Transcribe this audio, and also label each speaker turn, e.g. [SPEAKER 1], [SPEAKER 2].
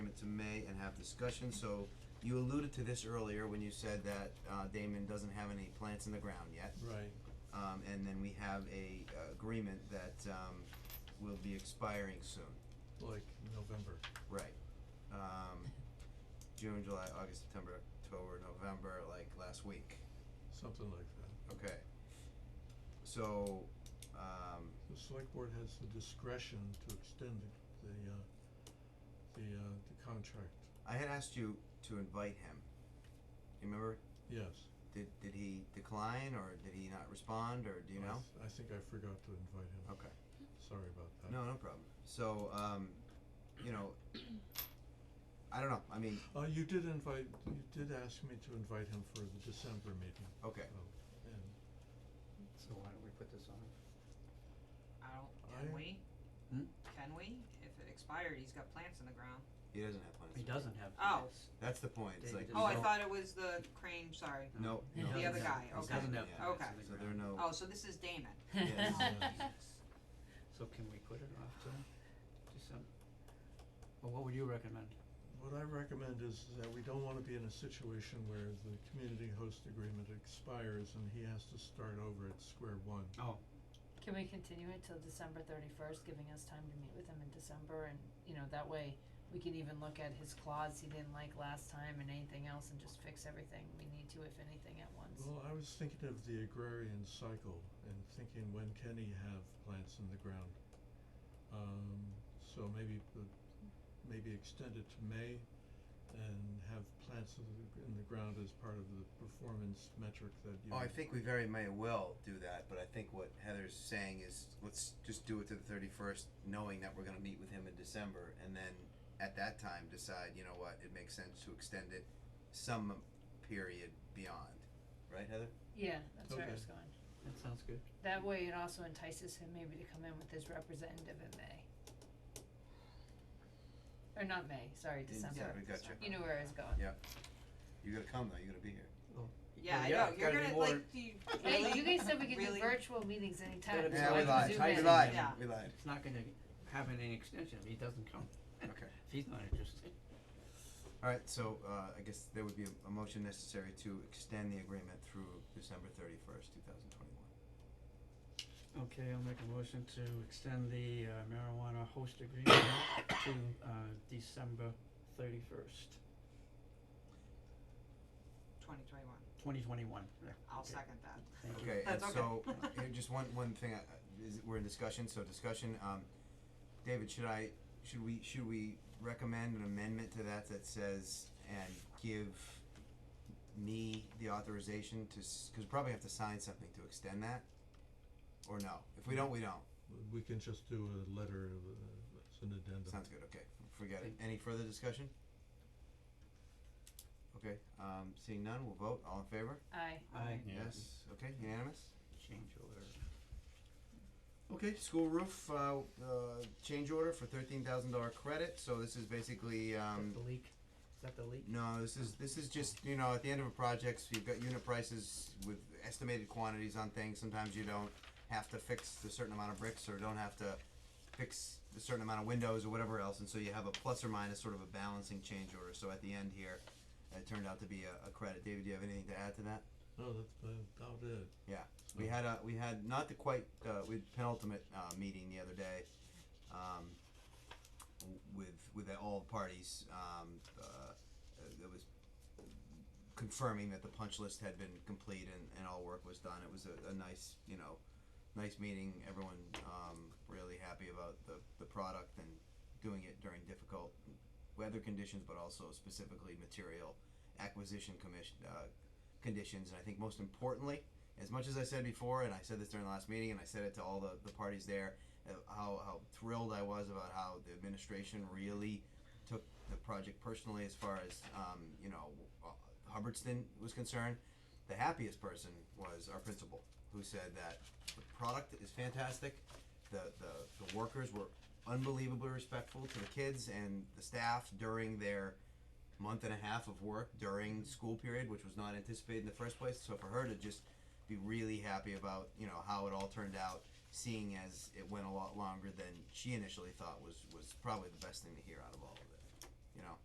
[SPEAKER 1] it to May and have discussion, so you alluded to this earlier when you said that, uh, Damon doesn't have any plants in the ground yet.
[SPEAKER 2] Right,
[SPEAKER 1] Um, and then we have a uh, agreement that, um, will be expiring soon.
[SPEAKER 2] like November.
[SPEAKER 1] Right. Um, June, July, August, September, October, November, like last week.
[SPEAKER 2] Something like that.
[SPEAKER 1] Okay. So, um,
[SPEAKER 2] The select board has the discretion to extend the, the, uh, the, uh, the contract,
[SPEAKER 1] I had asked you to invite him. You remember?
[SPEAKER 2] yes.
[SPEAKER 1] Did did he decline or did he not respond or do you
[SPEAKER 2] I
[SPEAKER 1] know?
[SPEAKER 2] th- I think I forgot to invite him,
[SPEAKER 1] Okay.
[SPEAKER 2] sorry about that.
[SPEAKER 1] No, no problem. So, um, you know, I don't know. I mean,
[SPEAKER 2] Uh, you did invite, you did ask me to invite him for the December meeting,
[SPEAKER 1] okay.
[SPEAKER 2] though, and
[SPEAKER 3] So why don't we put this on?
[SPEAKER 4] I don't,
[SPEAKER 2] I-
[SPEAKER 4] can we?
[SPEAKER 3] Hmm?
[SPEAKER 4] Can we? If it expired, he's got plants in the ground.
[SPEAKER 1] He doesn't have plans.
[SPEAKER 3] He doesn't have
[SPEAKER 4] Oh.
[SPEAKER 3] plants.
[SPEAKER 1] That's the point. It's like
[SPEAKER 3] David
[SPEAKER 4] Oh, I
[SPEAKER 1] no-
[SPEAKER 4] thought it was the crane, sorry.
[SPEAKER 1] No,
[SPEAKER 3] He
[SPEAKER 1] no.
[SPEAKER 4] Oh, The other
[SPEAKER 3] doesn't
[SPEAKER 4] guy,
[SPEAKER 3] have-
[SPEAKER 4] okay.
[SPEAKER 3] He doesn't have
[SPEAKER 1] Yeah.
[SPEAKER 3] plants
[SPEAKER 4] Okay.
[SPEAKER 3] in the
[SPEAKER 1] So there are
[SPEAKER 3] ground.
[SPEAKER 1] no.
[SPEAKER 4] Oh, so this is Damon.
[SPEAKER 1] Yes.
[SPEAKER 3] So can we put it off to December? Well, what would you recommend?
[SPEAKER 2] What I recommend is that we don't wanna be in a situation where the community host agreement expires and he has to start over at square one.
[SPEAKER 3] Oh,
[SPEAKER 5] Can we continue it till December thirty-first, giving us time to meet with him in December and, you know, that way we can even look at his clause he didn't like last time and anything else and just fix everything we need to, if anything, at once.
[SPEAKER 2] Well, I was thinking of the agrarian cycle and thinking when can he have plants in the ground? Um, so maybe the, maybe extend it to May and have plants in the, in the ground as part of the performance metric that you.
[SPEAKER 1] Oh, I think we very may well do that, but I think what Heather's saying is let's just do it to the thirty first, knowing that we're gonna meet with him in December, and then at that time decide, you know what, it makes sense to extend it some period beyond, right, Heather?
[SPEAKER 5] Yeah, that's where I
[SPEAKER 2] Okay.
[SPEAKER 5] was going.
[SPEAKER 3] that sounds good.
[SPEAKER 5] That way it also entices him maybe to come in with his representative in May. Or not May, sorry,
[SPEAKER 1] Yeah,
[SPEAKER 5] December.
[SPEAKER 1] we gotcha.
[SPEAKER 5] You know where I was going.
[SPEAKER 1] Yeah. You gotta come though. You gotta be here.
[SPEAKER 4] Yeah, I
[SPEAKER 3] yeah,
[SPEAKER 4] know,
[SPEAKER 3] it's
[SPEAKER 4] you're
[SPEAKER 3] gotta be
[SPEAKER 4] gonna,
[SPEAKER 3] more-
[SPEAKER 4] like, do you, really?
[SPEAKER 5] Hey, you guys said we could do
[SPEAKER 4] Really?
[SPEAKER 5] virtual meetings anytime,
[SPEAKER 3] Gotta be
[SPEAKER 5] so
[SPEAKER 1] Yeah,
[SPEAKER 5] I
[SPEAKER 1] we
[SPEAKER 3] like
[SPEAKER 5] can
[SPEAKER 1] lied.
[SPEAKER 5] zoom in.
[SPEAKER 1] We lied.
[SPEAKER 4] Yeah.
[SPEAKER 1] We lied.
[SPEAKER 3] It's not gonna have any extension if he doesn't come.
[SPEAKER 1] Okay.
[SPEAKER 3] If he's not interested.
[SPEAKER 1] All right. So uh, I guess there would be a, a motion necessary to extend the agreement through December thirty first, two thousand twenty one.
[SPEAKER 3] Okay, I'll make a motion to extend the uh, marijuana host agreement to uh, December thirty-first,
[SPEAKER 4] Twenty twenty-one.
[SPEAKER 3] twenty twenty-one.
[SPEAKER 4] I'll second that.
[SPEAKER 3] Thank you.
[SPEAKER 1] Okay, and
[SPEAKER 4] That's okay.
[SPEAKER 1] so, uh, here, just one, one thing, uh, uh, is, we're in discussion, so discussion, um, David, should I, should we, should we recommend an amendment to that that says, and give me the authorization to, s- cause we probably have to sign something to extend that? Or no, if we don't, we don't,
[SPEAKER 2] We can just do a letter of, uh, as an addendum.
[SPEAKER 1] sounds good, okay, forget it, any further discussion? Okay, um, seeing none, we'll vote, all in favor?
[SPEAKER 5] Aye.
[SPEAKER 3] Aye.
[SPEAKER 1] Yes. Okay, unanimous?
[SPEAKER 3] Change order.
[SPEAKER 1] Okay, school roof, uh, uh, change order for thirteen thousand dollar credit, so this is basically, um,
[SPEAKER 3] Is that the leak? Is that the leak?
[SPEAKER 1] no, this is, this is just, you know, at the end of a project, you've got unit prices with estimated quantities on things, sometimes you don't have to fix a certain amount of bricks, or don't have to fix a certain amount of windows or whatever else, and so you have a plus or minus sort of a balancing change order, so at the end here, it turned out to be a, a credit, David, do you have anything to add to that?
[SPEAKER 2] No, that's about it.
[SPEAKER 1] We had a we had not the quite uh, we had penultimate uh, meeting the other day, um, w- with with all parties. Um, uh, it was confirming that the punch list had been complete and, and all work was done. It was a, a nice you know nice meeting. Everyone um, really happy about the the product and doing it during difficult weather conditions, but also specifically material acquisition commission uh, conditions. And I think most importantly as much as I said before, and I said this during the last meeting, and I said it to all the, the parties there, uh, how, how thrilled I was about how the administration really took the project personally as far as, um, you know, uh, Hubbardston was concerned. The happiest person was our principal, who said that the product is fantastic, the, the, the workers were unbelievably respectful to the kids and the staff during their month and a half of work during school period, which was not anticipated in the first place. So for her to just be really happy about you know how it all turned out, seeing as it went a lot longer than she initially thought was was probably the best thing to hear out of all of it. You know,